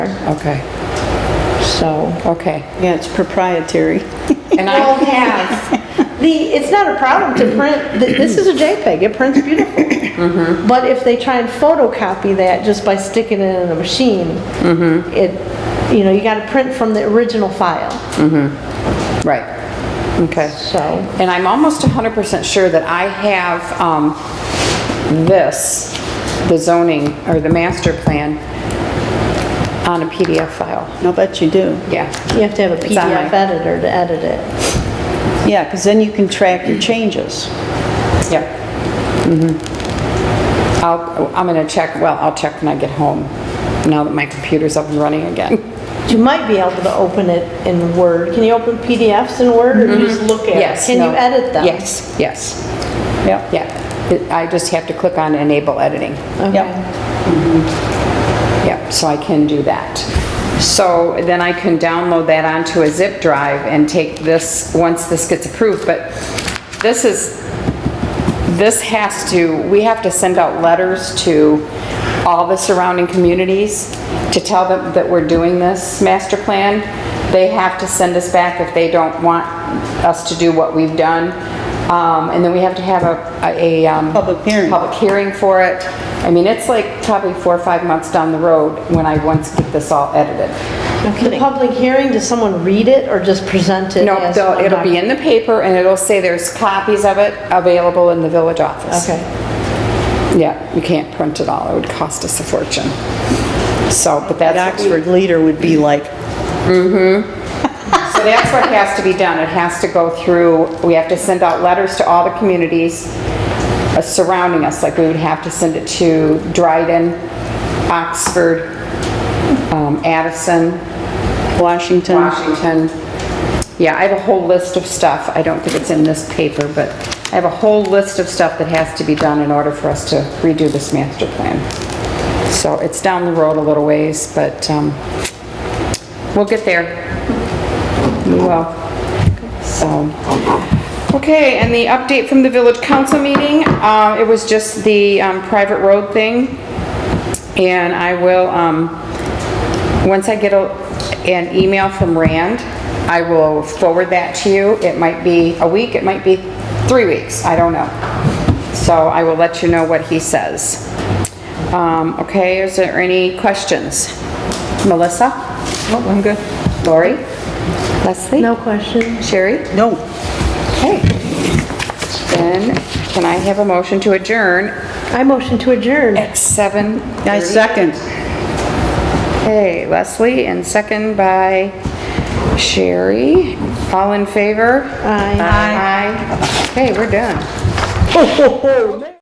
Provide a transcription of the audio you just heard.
Okay. So, okay. Yeah, it's proprietary. And I I, don't have. The, it's not a problem to print, th- this is a JPEG, it prints beautiful. Mm-hmm. But if they try and photocopy that just by sticking it in a machine, Mm-hmm. it, you know, you gotta print from the original file, right. Okay. so. And I'm almost 100% sure that I have um, this, the zoning, or the master plan, on a PDF file. I'll bet you do. Yeah. You have to have a It's on my- PDF editor to edit it. Yeah, because then you can track your changes. Yep. Mhm. I'll, I'm gonna check, well, I'll check when I get home, now that my computer's up and running again. You might be able to open it in Word. Can you open PDFs in Word or you just look at it? Mm-hmm. Yes. Can no, you edit them? Yes, yes, Yep. yeah. It- I just have to click on enable editing. Yep. Yep, so I can do that. So then I can download that onto a zip drive and take this, once this gets approved, but this is, this has to, we have to send out letters to all the surrounding communities to tell them that we're doing this master plan. They have to send us back if they don't want us to do what we've done. Um, and then we have to have a, a, um. Public hearing. Public hearing for it. I mean, it's like probably four or five months down the road when I once get this all edited. The public hearing, does someone read it or just present it? No, as they'll- one it'll be document? in the paper and it'll say there's copies of it available in the village office. Okay. Yeah, you can't print it all. It would cost us a fortune. So, but That that's, what we- Oxford leader would be like, so that's what has to be done. It has to go through, we have to send out letters to all the communities uh, surrounding us. Like we would have to send it to Dryden, Oxford, um, Addison, Washington. Washington. Yeah, I have a whole list of stuff. I don't think it's in this paper, but I have a whole list of stuff that has to be done in order for us to redo this master plan. So it's down the road a little ways, but um, we'll get there. We will. So, okay, and the update from the village council meeting, uh, it was just the um, private road thing. And I will, um, once I get a- an email from Rand, I will forward that to you. It might be a week, it might be three weeks, I don't know. So I will let you know what he says. Um, Okay, is there any questions? Melissa? Oh, I'm good. Lori? Leslie? No question? Sherry? No, Okay. Then, can I have a motion to adjourn I motion to adjourn. at 7? I second. Okay, Leslie, and second by Sherry. All in favor? Aye. Aye. Okay, we're done.